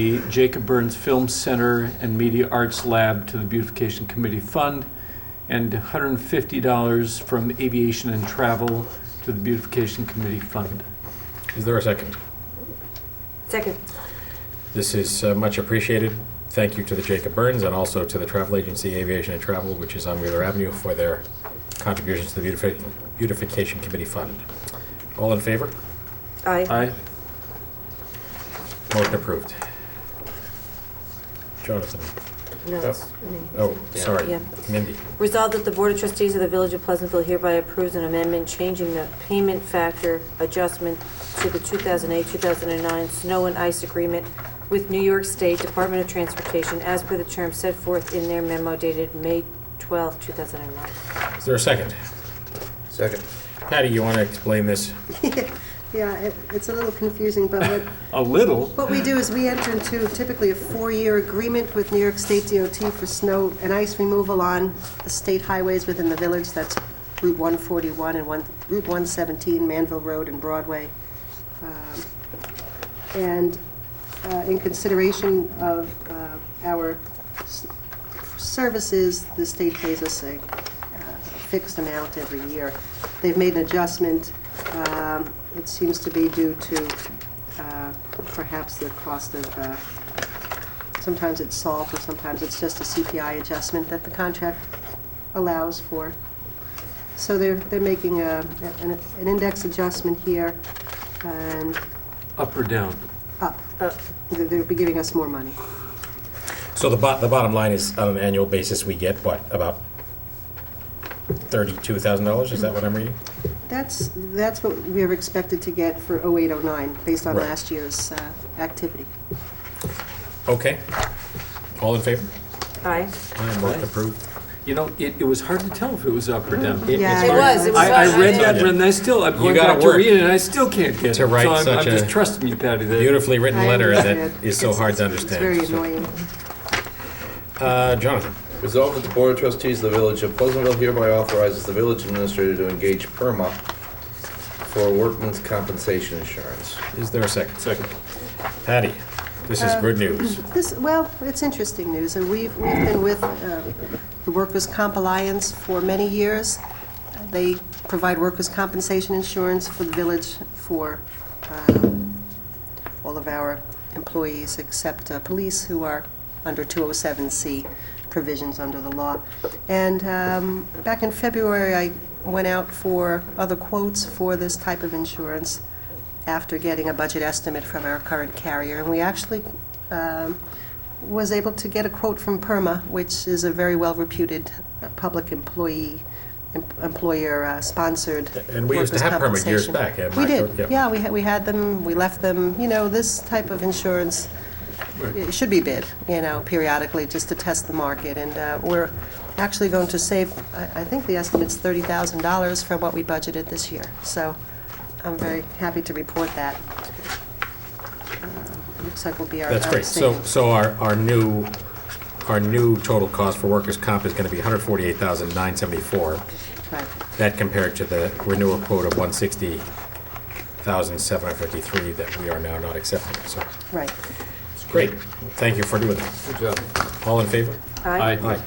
the Jacob Burns Film Center and Media Arts Lab to the Beautification Committee Fund, and $150 from Aviation and Travel to the Beautification Committee Fund. Is there a second? Second. This is uh, much appreciated. Thank you to the Jacob Burns and also to the Travel Agency Aviation and Travel, which is on Wheeler Avenue, for their contributions to the beautifi- Beautification Committee Fund. All in favor? Aye. Aye. Motion approved. Jonathan, No, it's me. oh, sorry, Yeah. Mindy. Resolved that the Board of Trustees of the Village of Pleasantville hereby approves an amendment changing the payment factor adjustment to the 2008-2009 snow and ice agreement with New York State Department of Transportation as per the terms set forth in their memo dated May 12, 2009. Is there a second? Second. Patty, you want to explain this? Yeah, it, it's a little confusing, but what, A little. what we do is we enter into typically a four-year agreement with New York State DOT for snow and ice removal on the state highways within the village, that's Route 141 and one, Route 117, Manville Road and Broadway. Um, And uh, in consideration of uh, our s- services, the state pays us a uh, fixed amount every year. They've made an adjustment. um, It seems to be due to uh, perhaps the cost of, uh, sometimes it's salt, or sometimes it's just a CPI adjustment that the contract allows for. So they're, they're making a- an an index adjustment here, and Up or down? up. They- They'll be giving us more money. So the bot, the bottom line is, on an annual basis, we get what, about $32,000? Is that what I'm reading? That's, that's what we are expected to get for 0809, based on Right. last year's uh, activity. Okay. All in favor? Aye. Aye, motion approved. You know, it, it was hard to tell if it was up or down. It- Yeah. it's It hard- was, it was I, I read hard. that, and I still, I'm going gotta back to work read it, and I still can't get it. to write So I'm- such I'm a just trusting you, Patty, that Beautifully written I letter that understand. is so It's- hard to It's very understand. annoying. Uh, Jonathan, Resolved that the Board of Trustees of the Village of Pleasantville hereby authorizes the village administrator to engage PERMA for workman's compensation insurance. is there a second? Second. Patty, this Uh, is good news. This, well, it's interesting news, and we've, we've been with uh, the Workers' Comp Alliance for many years. They provide workers' compensation insurance for the village for um, all of our employees except uh, police who are under 207C provisions under the law. And um, back in February, I went out for other quotes for this type of insurance after getting a budget estimate from our current carrier, and we actually um, was able to get a quote from PERMA, which is a very well-reputed uh, public employee, em- employer-sponsored And we used to workers' have PERMA years compensation. back, yeah, We Mike, yeah. did, yeah, we had, we had them, we left them, you know, this type of insurance, it should be bid, you know, periodically, just to test the market, and uh, we're actually going to save, I I think the estimate's $30,000 from what we budgeted this year, so I'm very happy to report that. Uh, Looks like we'll be our... That's our great. So, savings. so our, our new, our new total cost for workers' comp is going to be 148,974. Right. That compared to the renewal quote of 160,753 that we are now not accepting. So, Right. it's great. Thank you for doing that. Good job. All in favor? Aye. Aye.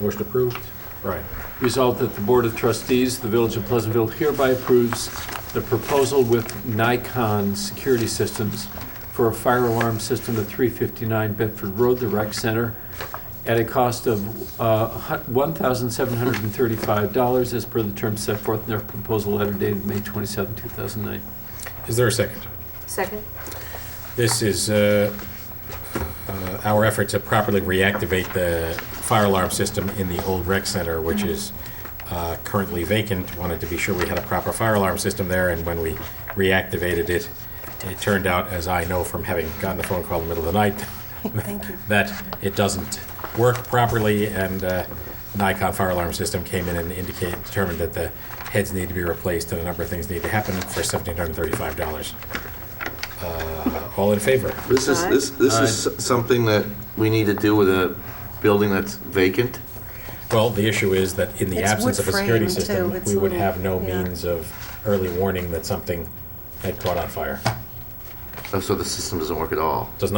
Motion approved. Right. Resolved that the Board of Trustees, of the Village of Pleasantville hereby approves the proposal with Nikon Security Systems for a fire alarm system at 359 Bedford Road, the rec center, at a cost of uh, hu- $1,735 as per the terms set forth in their proposal letter dated May 27, 2009. Is there a second? Second. This is uh, uh, our effort to properly reactivate the fire alarm system in the old rec center, which is uh, currently vacant. Wanted to be sure we had a proper fire alarm system there, and when we reactivated it, it turned out, as I know from having gotten a phone call in the middle of the night, that it doesn't work properly, and uh, Nikon fire alarm system came in and indicated, determined that the heads need to be replaced and a number of things need to happen for $1,735. All in favor? This is, this, this is s- something that we need to do with a building that's vacant? Well, the issue is that in the It's absence of a wood security frame, system, too. It's we would little- have no yeah. means of early warning that something had caught on fire. Oh, So the system doesn't work at all?